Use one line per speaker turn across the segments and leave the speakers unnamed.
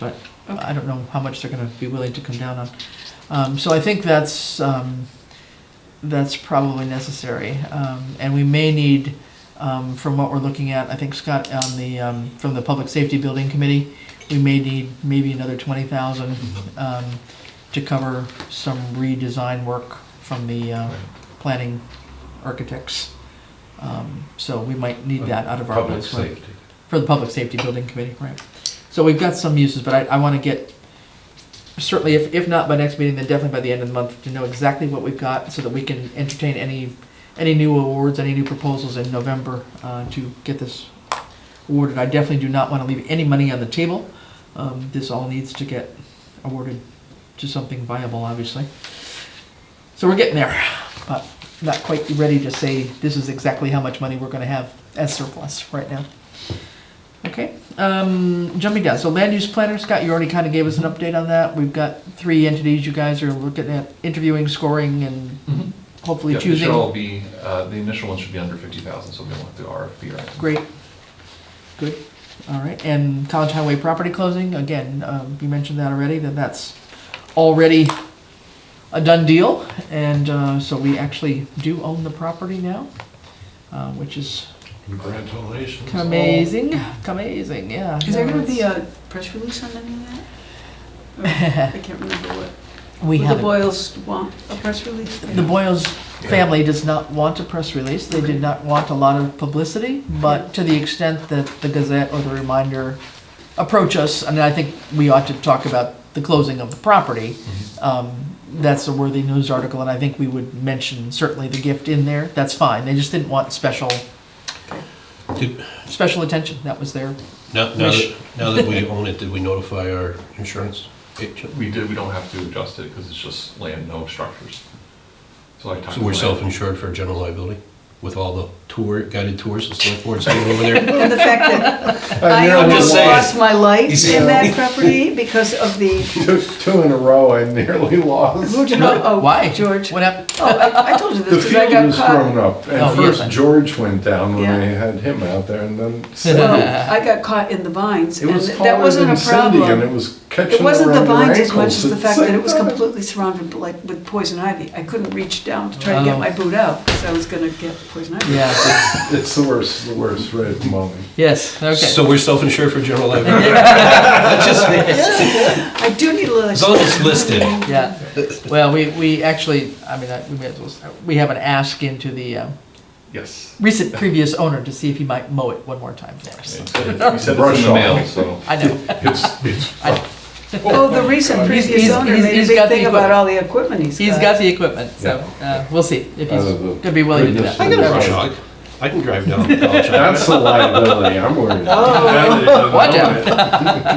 but I don't know how much they're gonna be willing to come down on. Um, so I think that's, um, that's probably necessary. Um, and we may need, um, from what we're looking at, I think Scott, on the, um, from the Public Safety Building Committee, we may need maybe another twenty thousand, um, to cover some redesign work from the, uh, planning architects. Um, so we might need that out of our.
Public
next one.
safety.
For the Public Safety Building Committee, right. So we've got some uses, but I, I want to get, certainly if, if not by next meeting, then definitely by the end of the month, to know exactly what we've got so that we can entertain any, any new awards, any new proposals in November uh, to get this awarded. I definitely do not want to leave any money on the table. Um, This all needs to get awarded to something viable, obviously. So we're getting there, but not quite ready to say this is exactly how much money we're going to have as surplus right now. Okay, um, jumping down, so land use planner, Scott, you already kind of gave us an update on that. We've got three entities you guys are looking at interviewing, scoring, and hopefully
mm-hmm. Yeah, they should
choosing.
all be, uh, the initial one should be under fifty thousand, so we don't have to RFP or anything.
Great, good, all right, and College Highway property closing, again, um, you mentioned that already, that that's already a done deal, and, uh, so we actually do own the property now, uh, which is
Congratulations.
amazing, amazing, yeah.
Is there
no,
gonna be
it's-
a press release on any of that? Or- I can't remember what.
We
Would
have.
the Boyles want a press release?
The Boyles
Yeah.
family does not want a press release, they did not want a lot of publicity, but to the extent that the Gazette or the Reminder approach us, I mean, I think we ought to talk about the closing of the property.
Mm-hmm.
Um, That's a worthy news article, and I think we would mention certainly the gift in there, that's fine, they just didn't want special,
Did-
special attention, that was their,
Now, now
Wish.
that, now that we own it, did we notify our insurance agent?
We did, we don't have to adjust it because it's just land, no structures. So I talked.
So
to
we're
Lance.
self-insured for general liability with all the tour, guided tours and select boards going over there?
And the fact that
Uh,
I
I'm
almost
just saying.
lost my life
Yeah.
in that property because of the,
Two, two in a row, I nearly lost.
oh,
why?
George.
What happened?
Oh, I I told you
The
this, 'cause I
field
got
was thrown
caught.
up,
Oh, yeah.
and first George went down when I had him out there, and then Cindy.
Well, I got caught in the vines,
It
and
was
that
taller
wasn't a
than Cindy, and it
problem.
was catching
It wasn't the
around her
vines as much
ankles.
as the
It's
fact that
like,
it was
"Ah."
completely surrounded like with poison ivy. I couldn't reach down to try to
Oh.
get
Wow.
my boot out, because I was gonna get poison ivy.
Yeah,
It's the worst, the worst right at the moment.
yes, okay.
So we're self-insured for general liability? That's just me.
I do need a little.
As long as it's listed.
Yeah, well, we, we actually, I mean, I- we may as well, we have an ask into the, um,
Yes.
recent previous owner to see if he might mow it one more time for us.
We said it's in
Brush
the
off.
mail, so.
I know.
It's, it's
Oh, the recent
He's-
previous
he's-
owner
he's-
made a
he's got
big
the
thing
equipment.
about all the equipment he's
He's got the equipment, so uh, we'll see if he's
Out of the
going to be willing to do that.
goodness
I
of
got a
Yeah.
brush hog. I can drive down to College Highway.
that's the liability I'm worried about.
Oh.
Watch out.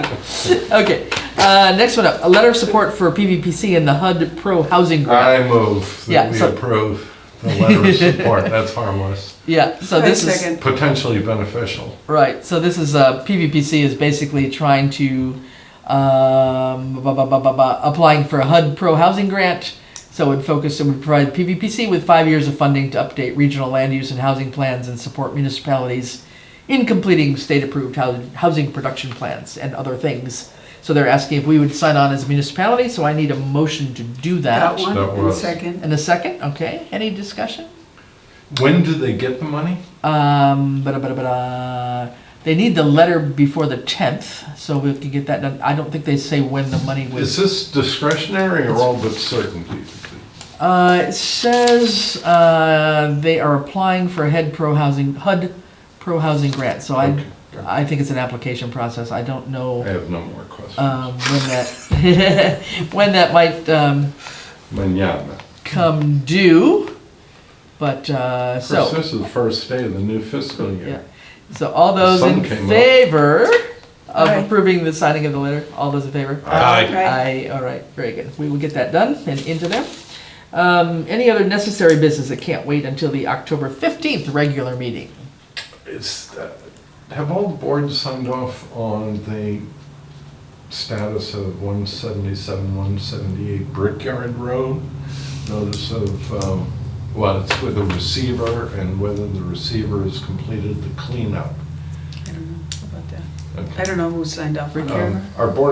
Okay, uh, next one up, a letter of support for PVPC and the HUD Pro Housing Grant.
I move
Yeah,
that we
so-
approve the letter of support. That's harmless,
Yeah, so this is.
potentially beneficial.
Right. So this is uh, PVPC is basically trying to um, ba- ba- ba- ba- ba- applying for a HUD Pro housing grant. So it would focus it would provide PVPC with five years of funding to update regional land use and housing plans and support municipalities in completing state-approved hou- housing production plans and other things. So they're asking if we would sign on as a municipality. So I need a motion to do that.
Got one,
That
and
was-
second.
And a second. Okay. Any discussion?
When do they get the money?
Um, but but but they need the letter before the tenth, so we can get that done. I don't think they say when the money
Is
was.
this discretionary or all but certainty?
Uh, it says uh, they are applying for a head pro housing HUD pro housing grant. So I
Okay.
I think it's an application process. I don't know
I have no more questions.
um, when that when that might um,
Manana.
come due, but uh,
Of course,
so
this is the first day of the new fiscal
yeah.
year.
So all
The
those
sun
in
came up.
favor of
Aye.
approving the signing of the letter, all those in favor?
Aye.
Aye, all right, very good. We will get that done and into them. Um, any other necessary business that can't wait until the October fifteenth regular meeting?
It's, uh, have all the boards signed off on the status of 177, 178 Brickyard Road? Notice of, um, well, it's with a receiver and whether the receiver has completed the cleanup.
I don't know about that.
Okay.
I don't know who signed off on that.
Um, Our board